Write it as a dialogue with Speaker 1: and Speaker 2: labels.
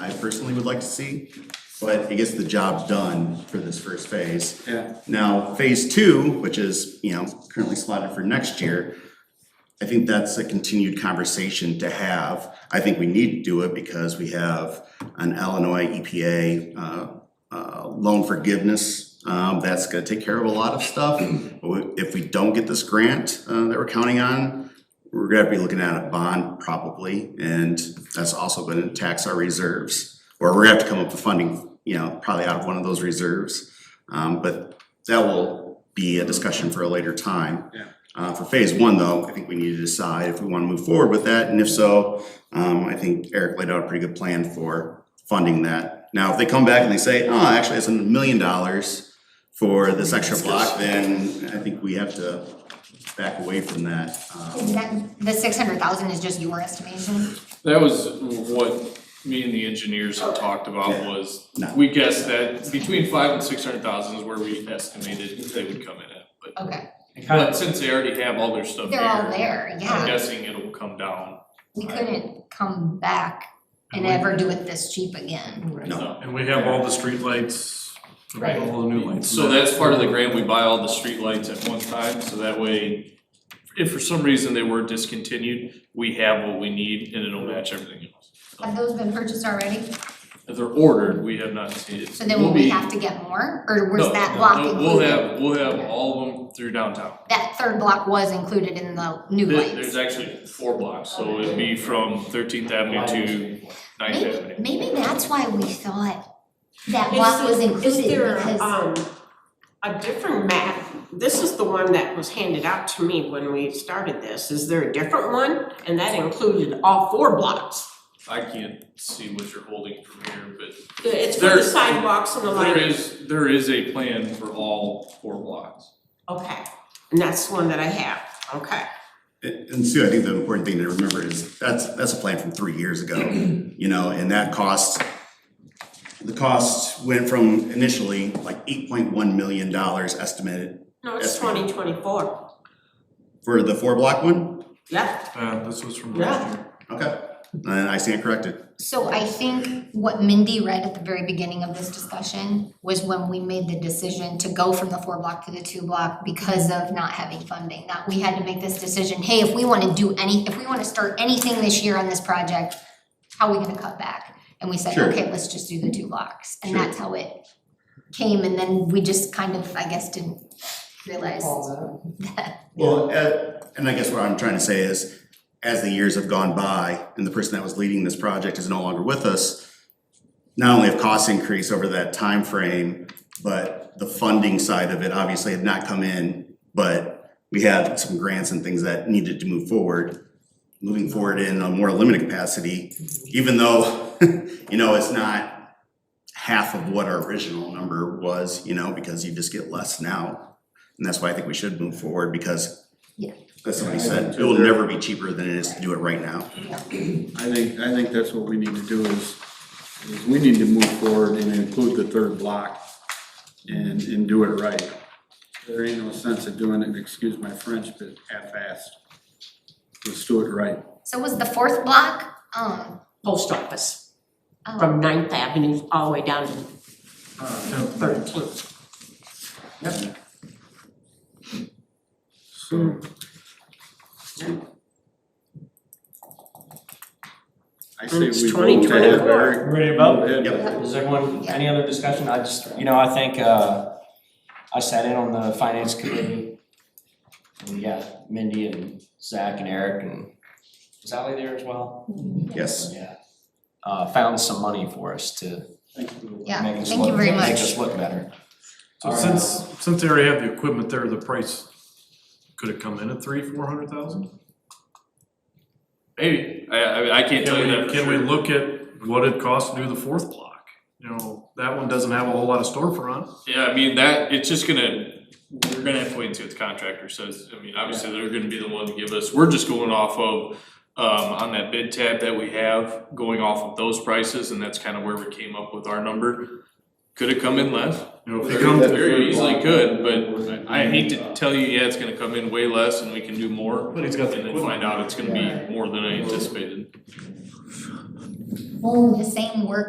Speaker 1: I personally would like to see, but it gets the job done for this first phase.
Speaker 2: Yeah.
Speaker 1: Now, phase two, which is, you know, currently slotted for next year, I think that's a continued conversation to have. I think we need to do it because we have an Illinois EPA uh, uh, loan forgiveness. um, That's gonna take care of a lot of stuff. But we- If we don't get this grant uh, that we're counting on, we're gonna be looking at a bond probably. And that's also gonna tax our reserves. Or we're gonna have to come up with funding, you know, probably out of one of those reserves. Um, But that will be a discussion for a later time.
Speaker 2: Yeah.
Speaker 1: Uh, for phase one though, I think we need to decide if we wanna move forward with that, and if so, um, I think Eric laid out a pretty good plan for funding that. Now, if they come back and they say, oh, actually, it's a million dollars for this extra block, then I think we have to back away from that.
Speaker 3: Is
Speaker 1: Um,
Speaker 3: that, the six hundred thousand is just your estimation?
Speaker 4: That was what me and the engineers had talked about
Speaker 1: Yeah.
Speaker 4: was,
Speaker 1: No.
Speaker 4: we guessed that between five and six hundred thousand is where we estimated they would come in at. But
Speaker 3: Okay,
Speaker 2: It kind
Speaker 4: but
Speaker 2: of,
Speaker 4: since they already have all their stuff
Speaker 3: they're all
Speaker 4: there,
Speaker 3: there,
Speaker 4: I'm
Speaker 3: yeah.
Speaker 4: guessing it'll come down.
Speaker 3: We couldn't come back and ever do it this cheap again.
Speaker 1: No.
Speaker 4: so.
Speaker 5: And we have all the streetlights, all the new lights.
Speaker 4: So that's part of the grant, we buy all the streetlights at one time, so that way, if for some reason they were discontinued, we have what we need and it'll match everything else.
Speaker 3: Have those been purchased already?
Speaker 4: If they're ordered, we have not seen it.
Speaker 3: So then
Speaker 4: We'll
Speaker 3: will we
Speaker 4: be-
Speaker 3: have to get more, or was
Speaker 4: No,
Speaker 3: that
Speaker 4: no,
Speaker 3: block
Speaker 4: no,
Speaker 3: included?
Speaker 4: We'll have, we'll have all of them through downtown.
Speaker 3: That third block was included in the new
Speaker 4: There-
Speaker 3: lights.
Speaker 4: There's actually four blocks, so it'd be from Thirteenth Avenue to Ninth
Speaker 3: Maybe,
Speaker 4: Avenue.
Speaker 3: maybe that's why we thought that
Speaker 6: Is-
Speaker 3: block was included
Speaker 6: Is there,
Speaker 3: because,
Speaker 6: um, a different map? This is the one that was handed out to me when we started this. Is there a different one? And that included all four blocks.
Speaker 4: I can't see what you're holding from here, but
Speaker 6: It's for
Speaker 4: There-
Speaker 6: the sidewalks and the
Speaker 4: there
Speaker 6: lighting.
Speaker 4: is, there is a plan for all four blocks.
Speaker 6: Okay, and that's the one that I have, okay.
Speaker 1: And and Sue, I think the important thing to remember is, that's, that's a plan from three years ago, you know, and that cost, the cost went from initially like eight point one million dollars estimated
Speaker 6: No, it's
Speaker 1: Yes, ma'am.
Speaker 6: twenty twenty-four.
Speaker 1: For the four block one?
Speaker 6: Yeah,
Speaker 5: Yeah, Uh, this was from last year.
Speaker 1: Okay. And I stand corrected.
Speaker 3: so I think what Mindy read at the very beginning of this discussion was when we made the decision to go from the four block to the two block because of not having funding, that we had to make this decision, hey, if we wanna do any, if we wanna start anything this year on this project, how are we gonna cut back? And we said,
Speaker 1: Sure.
Speaker 3: okay, let's just do the two blocks, and
Speaker 1: Sure.
Speaker 3: that's how it came, and then we just kind of, I guess, didn't realize
Speaker 1: Well, uh, and I guess what I'm trying to say is, as the years have gone by and the person that was leading this project is no longer with us, not only have costs increased over that time frame, but the funding side of it obviously had not come in, but we had some grants and things that needed to move forward, moving forward in a more limited capacity, even though, you know, it's not half of what our original number was, you know, because you just get less now. And that's why I think we should move forward because
Speaker 3: Yeah.
Speaker 1: as somebody said, it will never be cheaper than it is to do it right now.
Speaker 2: I think, I think that's what we need to do is, is we need to move forward and include the third block and, and do it right. There ain't no sense of doing it, excuse my French, but half-assed. Let's do it right.
Speaker 3: So was the fourth block, um,
Speaker 6: post office,
Speaker 3: oh,
Speaker 6: from Ninth Avenue all the way down to, uh, Thirteenth.
Speaker 2: So. I say
Speaker 6: It's
Speaker 2: we vote to have
Speaker 6: 2024.
Speaker 2: Eric.
Speaker 7: Ready to vote?
Speaker 2: Yep.
Speaker 7: Is everyone, any other discussion? I just, you know, I think, uh, I sat in on the finance committee. And yeah, Mindy and Zach and Eric and was Ally there as well?
Speaker 1: Yes.
Speaker 7: Yeah. Uh, found some money for us to make
Speaker 3: yeah,
Speaker 7: us
Speaker 3: thank you
Speaker 7: look,
Speaker 3: very
Speaker 7: make
Speaker 3: much.
Speaker 7: us look better.
Speaker 5: So since, since they already have the equipment there, the price, could it come in at three, four hundred thousand?
Speaker 4: Maybe, I, I, I can't tell you that
Speaker 5: Can
Speaker 4: for
Speaker 5: we,
Speaker 4: sure.
Speaker 5: can we look at what it costs to do the fourth block? You know, that one doesn't have a whole lot of storefront.
Speaker 4: Yeah, I mean, that, it's just gonna, we're gonna have to wait until the contractor says, I mean, obviously, they're gonna be the one to give us, we're just going off of. Um, on that bid tab that we have, going off of those prices, and that's kind of where we came up with our number. Could it come in less?
Speaker 5: You know, if you come,
Speaker 4: Very easily could, but I hate to tell you, yeah, it's gonna come in way less and we can do more,
Speaker 5: but he's got
Speaker 4: and
Speaker 5: the
Speaker 4: then
Speaker 5: equipment.
Speaker 4: find out it's gonna be more than I anticipated.
Speaker 3: Well, the same work